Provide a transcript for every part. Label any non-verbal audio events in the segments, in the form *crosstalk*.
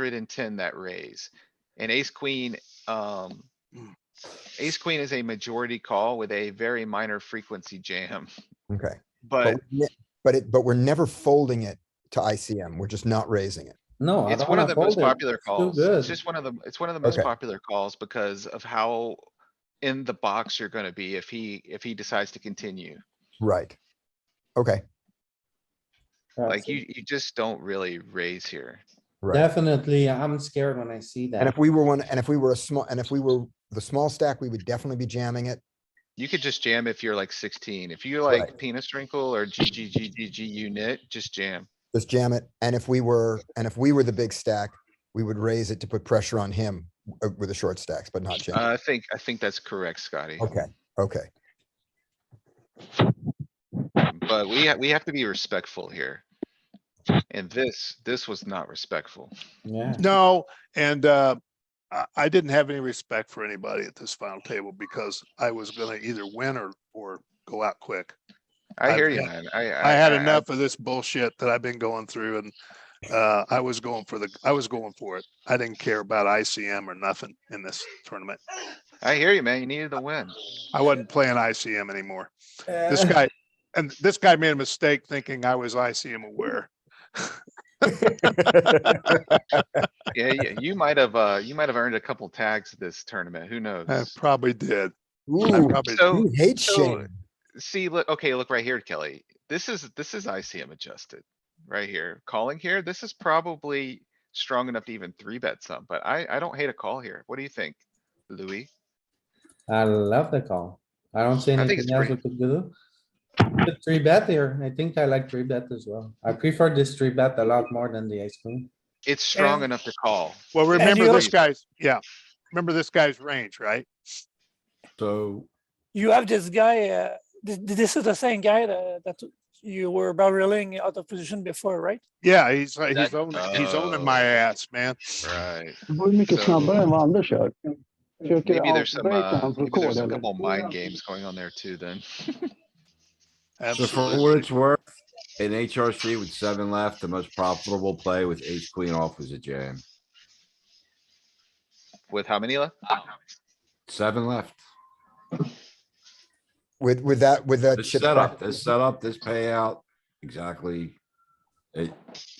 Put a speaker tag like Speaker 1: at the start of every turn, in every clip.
Speaker 1: hundred and ten that raise. And ace queen, um.
Speaker 2: Mm.
Speaker 1: Ace queen is a majority call with a very minor frequency jam, *laughs*
Speaker 3: Okay,
Speaker 1: but
Speaker 3: but, we ne- but it, but we're never folding it to ICM. We're just not raising it.
Speaker 2: No, Oh, I
Speaker 1: it's
Speaker 2: don't
Speaker 1: one of
Speaker 2: wanna
Speaker 1: the most
Speaker 2: fold it.
Speaker 1: popular
Speaker 2: It's too
Speaker 1: calls. It's
Speaker 2: good.
Speaker 1: just one of the, it's one of the most
Speaker 3: Okay.
Speaker 1: popular calls because of how. In the box you're gonna be if he, if he decides to continue.
Speaker 3: Right. Okay,
Speaker 2: That's
Speaker 1: Like
Speaker 2: it.
Speaker 1: you, you just don't really raise here.
Speaker 3: right.
Speaker 2: Definitely, I'm scared when I see
Speaker 3: And if
Speaker 2: that.
Speaker 3: we were one, and if we were a small, and if we were the small stack, we would definitely be jamming it.
Speaker 1: You could just jam if you're like sixteen. If you're
Speaker 3: Right.
Speaker 1: like penis wrinkle or GGGGG unit, just jam.
Speaker 3: Just jam it. And if we were, and if we were the big stack, we would raise it to put pressure on him uh, with the short stacks, but not jam.
Speaker 1: Uh, I think, I think that's correct, Scotty.
Speaker 3: Okay, okay.
Speaker 1: But we, ha- we have to be respectful here. And this, this was not respectful.
Speaker 2: Yeah,
Speaker 4: No, and uh, I, I didn't have any respect for anybody at this final table because I was gonna either win or, or go out quick.
Speaker 1: I
Speaker 4: I've
Speaker 1: hear you,
Speaker 4: had-
Speaker 1: man. I, I.
Speaker 4: I had
Speaker 1: I-
Speaker 4: enough of this bullshit that I've been going through and uh, I was going for the, I was going for it. I didn't care about ICM or nothing in this tournament.
Speaker 1: I hear you, man. You needed to win.
Speaker 4: I wasn't playing ICM anymore. This
Speaker 1: *laughs*
Speaker 4: guy, and this guy made a mistake thinking I was ICM aware.
Speaker 1: Yeah, yeah, you might have, uh, you might have earned a couple tags this tournament. Who
Speaker 4: I
Speaker 1: knows?
Speaker 4: probably did. I
Speaker 3: Ooh,
Speaker 4: probably,
Speaker 1: So,
Speaker 3: you hate
Speaker 1: so-
Speaker 3: shame.
Speaker 1: see, look, okay, look right here, Kelly. This is, this is ICM adjusted. Right here, calling here. This is probably strong enough to even three bet some, but I, I don't hate a call here. What do you think, Louis?
Speaker 2: *laughs* I love the call. I don't see
Speaker 1: I think it's
Speaker 2: anything else we could do. The Three bet here. I think I like three bet as well. I prefer this three bet a lot more than the ice cream.
Speaker 1: It's strong
Speaker 4: And-
Speaker 1: enough to call.
Speaker 4: well,
Speaker 1: And
Speaker 4: remember
Speaker 1: you
Speaker 4: this
Speaker 1: also-
Speaker 4: guy's, yeah, remember this guy's range, right?
Speaker 5: So
Speaker 6: you have this guy. Uh, this, this is the same guy that, that you were barreling out of position before, right?
Speaker 4: Yeah, he's like,
Speaker 1: That-
Speaker 4: he's owning, he's owning my
Speaker 1: Oh.
Speaker 4: ass, man.
Speaker 1: Right.
Speaker 7: Bölmik
Speaker 1: So-
Speaker 7: so, snabbare än vad Anders gör. Försöker
Speaker 1: Maybe there's some,
Speaker 7: outbreaka
Speaker 1: uh,
Speaker 7: hans
Speaker 1: maybe there's
Speaker 7: rekord.
Speaker 1: a
Speaker 7: eller?
Speaker 1: couple mind games going on there too then.
Speaker 5: so for what
Speaker 4: Absolutely.
Speaker 5: it's worth, in HRC with seven left, the most profitable play with ace queen off was a jam.
Speaker 1: With how many left?
Speaker 5: Seven left.
Speaker 3: With, with that, with that.
Speaker 5: This
Speaker 3: chip
Speaker 5: setup,
Speaker 3: stack-
Speaker 5: this setup, this payout, exactly. It,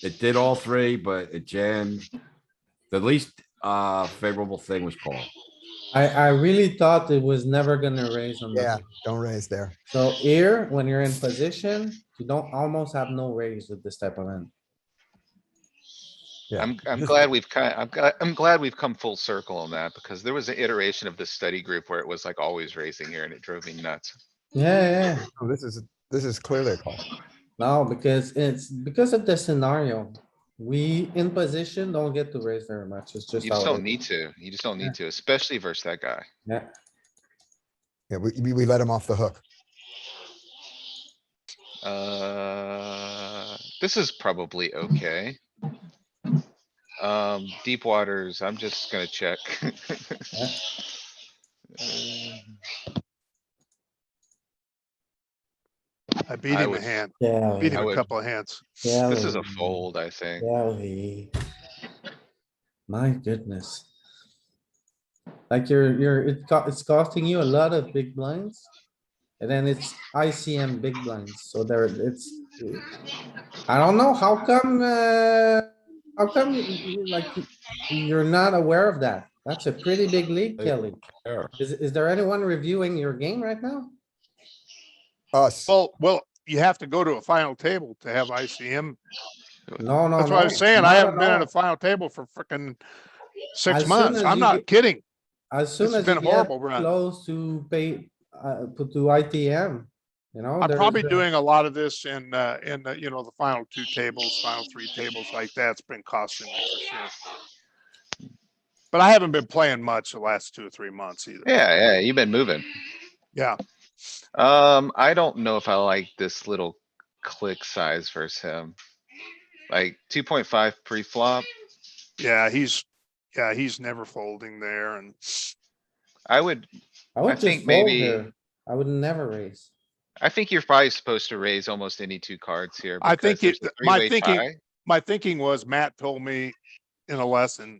Speaker 5: it did all three, but it jammed. The least, uh, favorable thing was call.
Speaker 2: I, I really thought it was never gonna raise on
Speaker 3: Yeah,
Speaker 2: that.
Speaker 3: don't raise there.
Speaker 2: So here, when you're in position, you don't almost have no raise with this type of hand.
Speaker 3: Yeah.
Speaker 1: I'm, I'm glad we've kind, I'm, gl- I'm glad we've come full circle on that because there was an iteration of this study group where it was like always raising here and it drove me nuts.
Speaker 2: Yeah, yeah.
Speaker 3: Oh, This is, this is clearly a call.
Speaker 2: No, because it's because of the scenario. We in position don't get to raise very much. It's just.
Speaker 1: You just
Speaker 2: how it
Speaker 1: don't
Speaker 2: is.
Speaker 1: need to. You just don't
Speaker 2: Yeah.
Speaker 1: need to, especially versus that guy.
Speaker 2: Yeah,
Speaker 3: Yeah, we, we- we let him off the hook.
Speaker 1: Uh, this is probably okay. Um, deep waters, I'm just gonna check. *laughs* Uh,
Speaker 4: I beat
Speaker 1: I
Speaker 4: him a
Speaker 1: would-
Speaker 4: hand,
Speaker 2: yeah.
Speaker 4: beat him a
Speaker 1: would-
Speaker 4: couple of hands.
Speaker 2: yeah,
Speaker 1: This is a
Speaker 2: we-
Speaker 1: fold, I think.
Speaker 2: yeah, we- My goodness. Like you're, you're, it co- it's costing you a lot of big blinds. And then it's ICM big blinds, so there it's. I don't know, how come, uh, how come, you- you- like, you're not aware of that? That's a pretty big league, Kelly.
Speaker 5: Error.
Speaker 2: Is, is there anyone reviewing your game right now?
Speaker 3: Us,
Speaker 4: Well, well, you have to go to a final table to have ICM.
Speaker 2: No, Oh, no, no.
Speaker 4: That's what I was saying. I
Speaker 2: not
Speaker 4: haven't been
Speaker 2: all.
Speaker 4: at a final table for frickin'
Speaker 2: As
Speaker 4: six
Speaker 2: soon
Speaker 4: months.
Speaker 2: as
Speaker 4: I'm
Speaker 2: you
Speaker 4: not
Speaker 2: get-
Speaker 4: kidding.
Speaker 2: As soon
Speaker 4: It's
Speaker 2: as
Speaker 4: been
Speaker 2: you
Speaker 4: a
Speaker 2: get
Speaker 4: horrible run.
Speaker 2: close to pay, uh, to to ITM, Oh, you know.
Speaker 4: I'm
Speaker 2: there's
Speaker 4: probably
Speaker 2: a-
Speaker 4: doing a lot of this in, uh, in, the, you know, the final two tables, final three tables like that. It's been costing me for sure. But I haven't been playing much the last two or three months either.
Speaker 1: Yeah, yeah, you've been moving.
Speaker 4: Yeah,
Speaker 1: Um, I don't know if I like this little click size versus him. Like two point five pre-flop,
Speaker 4: yeah, he's, yeah, he's never folding there and
Speaker 1: I would,
Speaker 2: I
Speaker 1: I
Speaker 2: would just
Speaker 1: think
Speaker 2: fold
Speaker 1: maybe-
Speaker 2: here. I would never raise.
Speaker 1: I think you're probably supposed to raise almost any two cards here.
Speaker 4: I
Speaker 1: because
Speaker 4: think it-
Speaker 1: there's a
Speaker 4: my
Speaker 1: three-way
Speaker 4: thinking-
Speaker 1: tie.
Speaker 4: my thinking was Matt told me in a lesson